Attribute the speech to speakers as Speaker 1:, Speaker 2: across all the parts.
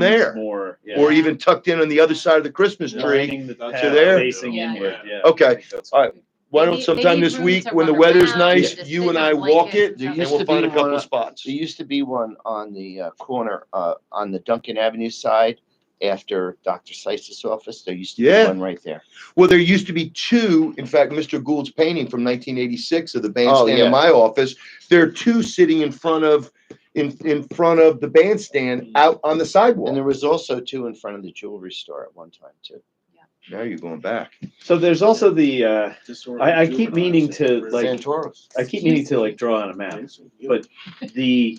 Speaker 1: there
Speaker 2: more, yeah.
Speaker 1: or even tucked in on the other side of the Christmas tree.
Speaker 2: Lining the duck
Speaker 1: to
Speaker 2: path
Speaker 1: there.
Speaker 2: Facing
Speaker 3: Yeah.
Speaker 2: inward, yeah.
Speaker 1: Okay,
Speaker 2: I think that's-
Speaker 1: all right. Why
Speaker 3: They
Speaker 1: don't
Speaker 3: need-
Speaker 1: sometime
Speaker 3: they need
Speaker 1: this
Speaker 3: room
Speaker 1: week,
Speaker 3: to
Speaker 1: when the
Speaker 3: run
Speaker 1: weather's
Speaker 3: around,
Speaker 1: nice,
Speaker 3: just
Speaker 1: you
Speaker 3: stick
Speaker 1: and
Speaker 3: up
Speaker 1: I walk
Speaker 3: blankets and
Speaker 1: it
Speaker 4: There
Speaker 3: stuff.
Speaker 1: and
Speaker 4: used
Speaker 1: we'll
Speaker 4: to
Speaker 1: find a
Speaker 4: be one
Speaker 1: couple
Speaker 4: up-
Speaker 1: spots.
Speaker 4: There used to be one on the uh, corner, uh, on the Duncan Avenue side after Dr. Seitz's office. There used to be
Speaker 1: Yeah.
Speaker 4: one right there.
Speaker 1: Well, there used to be two, in fact, Mr. Gould's painting from nineteen eighty-six of the bandstand
Speaker 4: Oh, yeah.
Speaker 1: in my office. There are two sitting in front of, in, in front of the
Speaker 2: Mm.
Speaker 1: bandstand out on the
Speaker 4: And there
Speaker 1: sidewalk.
Speaker 4: was also two in front of the jewelry store at one time too.
Speaker 1: Now you're going back.
Speaker 2: So there's also the, uh, I- I keep meaning to, like-
Speaker 4: Santoros.
Speaker 2: I keep meaning to like draw on a map, but the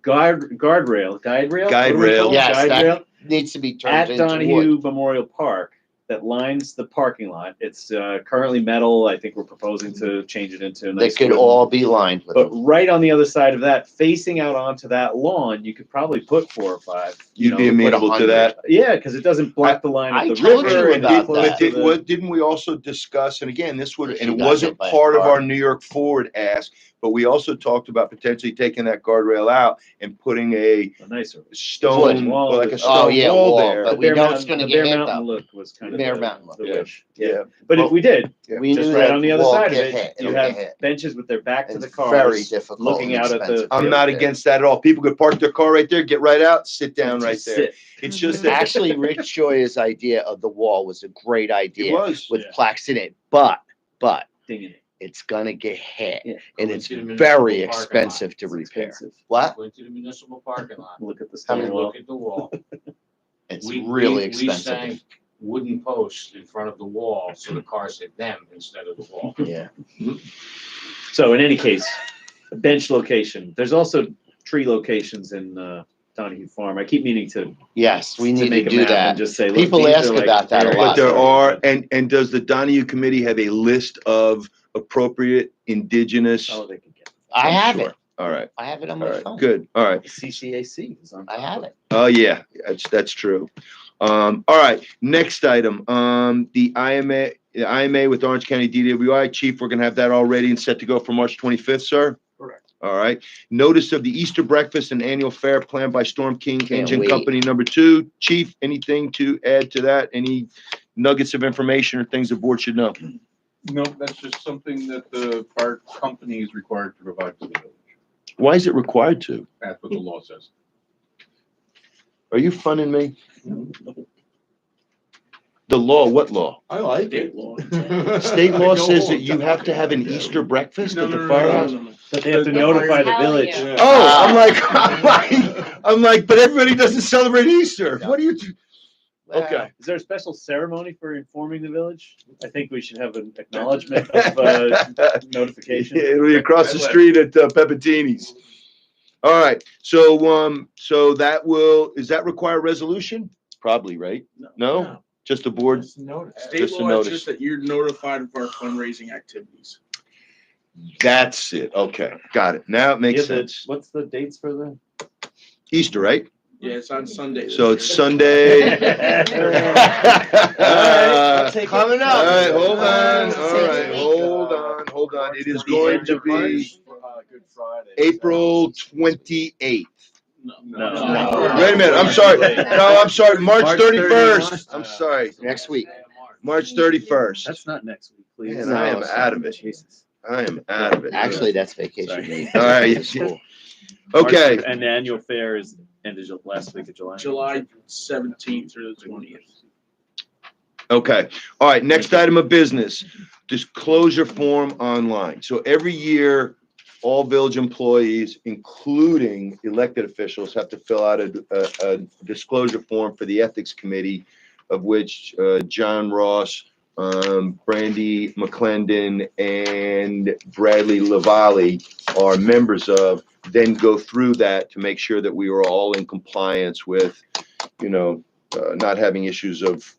Speaker 2: guard, guardrail, guide rail?
Speaker 1: Guide
Speaker 2: What do we
Speaker 1: rail.
Speaker 2: call it?
Speaker 4: Yes,
Speaker 2: Guide
Speaker 4: that-
Speaker 2: rail
Speaker 4: Needs to be turned
Speaker 2: at
Speaker 4: into wood.
Speaker 2: Donahue Memorial Park that lines the parking lot. It's, uh, currently metal. I think we're proposing to change it into a
Speaker 4: They
Speaker 2: nice.
Speaker 4: could
Speaker 2: wooden-
Speaker 4: all be lined with
Speaker 2: But
Speaker 4: them.
Speaker 2: right on the other side of that, facing out onto that lawn, you could probably put four or five. you
Speaker 1: You'd be
Speaker 2: know, put-
Speaker 1: amenable to that.
Speaker 2: Yeah, because it doesn't block the line
Speaker 4: I
Speaker 2: of the
Speaker 4: told you
Speaker 2: river. and
Speaker 4: about
Speaker 2: it
Speaker 1: But
Speaker 2: blocks
Speaker 4: that.
Speaker 1: did,
Speaker 2: the-
Speaker 1: what, didn't we also discuss, and again, this would,
Speaker 4: If
Speaker 1: and
Speaker 4: you
Speaker 1: it
Speaker 4: got
Speaker 1: wasn't
Speaker 4: hit by a
Speaker 1: part of
Speaker 4: car.
Speaker 1: our New York Ford ask, but we also talked about potentially taking that guardrail out and putting a
Speaker 2: A nicer.
Speaker 1: stone,
Speaker 2: Wood wall.
Speaker 1: like a
Speaker 4: Oh,
Speaker 1: stone
Speaker 4: yeah,
Speaker 1: wall
Speaker 4: wall,
Speaker 1: there.
Speaker 4: but
Speaker 2: The
Speaker 4: we
Speaker 2: Bear
Speaker 4: know it's
Speaker 2: Mountain-
Speaker 4: gonna
Speaker 2: the
Speaker 4: get
Speaker 2: Bear
Speaker 4: hit,
Speaker 2: Mountain look was kind of
Speaker 4: Bear
Speaker 2: the-
Speaker 4: Mountain look.
Speaker 2: the
Speaker 1: Yeah.
Speaker 2: wish.
Speaker 1: Yeah.
Speaker 2: Yeah, but if
Speaker 1: Well,
Speaker 2: we did,
Speaker 4: We
Speaker 2: just
Speaker 4: knew
Speaker 2: right
Speaker 4: that
Speaker 2: on the other
Speaker 4: wall
Speaker 2: side of
Speaker 4: get
Speaker 2: it,
Speaker 4: hit,
Speaker 2: you
Speaker 4: it'll
Speaker 2: have
Speaker 4: get hit.
Speaker 2: benches with their back to
Speaker 4: It's
Speaker 2: the
Speaker 4: Very
Speaker 2: cars.
Speaker 4: difficult.
Speaker 2: looking
Speaker 4: and
Speaker 2: out at the-
Speaker 4: expensive.
Speaker 1: I'm
Speaker 2: Yeah.
Speaker 1: not against that at all. People could park their car right there, get right out, sit down right there. It's just that
Speaker 4: Actually, Rick Shoya's idea of the wall was a great
Speaker 1: it
Speaker 4: idea
Speaker 1: was.
Speaker 4: with
Speaker 2: Yeah.
Speaker 4: plaques in it, but, but
Speaker 2: Dinging it.
Speaker 4: it's gonna get hit
Speaker 2: Yeah.
Speaker 4: and
Speaker 5: Going
Speaker 4: it's
Speaker 5: to the
Speaker 4: very
Speaker 5: municipal parking lot.
Speaker 4: expensive to
Speaker 2: It's
Speaker 4: repair.
Speaker 2: expensive.
Speaker 4: What?
Speaker 5: Went to the municipal parking lot.
Speaker 2: Look at the
Speaker 4: How
Speaker 5: Have
Speaker 4: many-
Speaker 2: stone
Speaker 5: a
Speaker 2: wall.
Speaker 5: look at the wall.
Speaker 4: It's
Speaker 5: We-
Speaker 4: really
Speaker 5: we- we
Speaker 4: expensive.
Speaker 5: sank Wooden posts in front of the wall, so the cars hit them instead of the wall.
Speaker 4: Yeah.
Speaker 2: So in any case, a bench location. There's also tree locations in uh, Donahue Farm. I keep meaning to.
Speaker 4: Yes, we need to
Speaker 2: make a
Speaker 4: do
Speaker 2: map and
Speaker 4: that.
Speaker 2: Just say. look,
Speaker 4: People
Speaker 2: these are
Speaker 4: ask
Speaker 2: like
Speaker 4: about that a
Speaker 2: areas
Speaker 1: But
Speaker 4: lot.
Speaker 1: there are, and, and does the Donahue Committee have a list of appropriate indigenous?
Speaker 2: Oh, they can get
Speaker 4: I
Speaker 1: I'm
Speaker 4: have
Speaker 1: sure.
Speaker 4: it.
Speaker 1: All right,
Speaker 4: I have it on
Speaker 1: all
Speaker 4: my
Speaker 1: right,
Speaker 4: phone.
Speaker 1: good, all right.
Speaker 2: it. CCAC is on.
Speaker 4: I have it.
Speaker 1: Oh, yeah, that's, that's true. Um, all right, next item, um, the IMA, the IMA with Orange County DWI. Chief, we're gonna have that all ready and set to go for March twenty-fifth, sir?
Speaker 5: Correct.
Speaker 1: All right, notice of the Easter breakfast and annual fair planned by Storm King
Speaker 4: Can't
Speaker 1: Engine
Speaker 4: wait.
Speaker 1: Company number two. Chief, anything to add to that? Any nuggets of information or things the board should know?
Speaker 6: No, that's just something that the fire company is required to provide to the village.
Speaker 1: Why is it required to?
Speaker 6: That's what the law says.
Speaker 1: Are you funning me? The law, what law?
Speaker 6: I like
Speaker 5: State law.
Speaker 1: State law says that you have to have an Easter breakfast
Speaker 6: No,
Speaker 1: at
Speaker 6: no,
Speaker 1: the
Speaker 6: no, no,
Speaker 1: firehouse?
Speaker 6: no, no.
Speaker 2: But they have to notify the village.
Speaker 1: Oh, I'm
Speaker 4: Ah.
Speaker 1: like, I'm like, I'm like, but everybody doesn't celebrate Easter. What do you? Okay.
Speaker 2: Is there a special ceremony for informing the village? I think we should have an acknowledgement of uh, notification.
Speaker 1: It'll be across the street at uh, Pepitini's. All right, so, um, so that will, is that require resolution? Probably, right? No? Just the board?
Speaker 7: State
Speaker 1: Just a
Speaker 7: law is
Speaker 1: notice.
Speaker 7: just that you're notified of our fundraising activities.
Speaker 1: That's it. Okay, got it. Now it makes
Speaker 2: Yeah, the-
Speaker 1: sense.
Speaker 2: What's the dates for the?
Speaker 1: Easter, right?
Speaker 7: Yeah, it's on Sunday.
Speaker 1: So it's Sunday. Uh,
Speaker 4: Coming
Speaker 1: All right,
Speaker 4: up.
Speaker 1: hold on, all
Speaker 4: Uh,
Speaker 1: right, hold on, hold on. It is going to be April twenty-eighth.
Speaker 2: No.
Speaker 7: No.
Speaker 1: Wait a minute, I'm sorry. No, I'm sorry, March
Speaker 2: March
Speaker 1: thirty-first.
Speaker 2: 31st.
Speaker 1: I'm sorry,
Speaker 4: Next week.
Speaker 1: March thirty-first.
Speaker 2: That's not next week, please.
Speaker 1: Man, I am out of it.
Speaker 2: Jesus.
Speaker 1: I am out of it.
Speaker 4: Actually, that's vacation
Speaker 2: Sorry.
Speaker 4: week.
Speaker 1: All right.
Speaker 4: School.
Speaker 1: Okay,
Speaker 2: And the annual fair is ended ju- last week of July.
Speaker 7: July seventeenth through the twentieth.
Speaker 1: okay. All right, next item of business, disclosure form online. So every year, all village employees, including elected officials, have to fill out a, a, a disclosure form for the Ethics Committee, of which, uh, John Ross, um, Brandy McClendon, and Bradley Lavalley are members of, then go through that to make sure that we are all in compliance with, you know, uh, not having issues of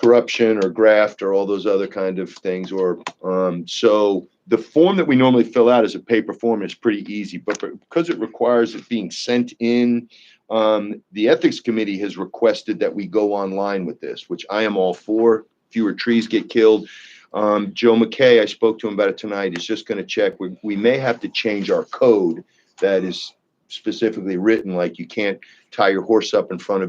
Speaker 1: corruption or graft or all those other kind of things, or, um, so, the form that we normally fill out as a paper form is pretty easy, but for- because it requires it being sent in, um, the ethics committee has requested that we go online with this, which I am all for. Fewer trees get killed. Um, Joe McKay, I spoke to him about it tonight, is just gonna check. We, we may have to change our code that is specifically written, like you can't tie your horse up in front of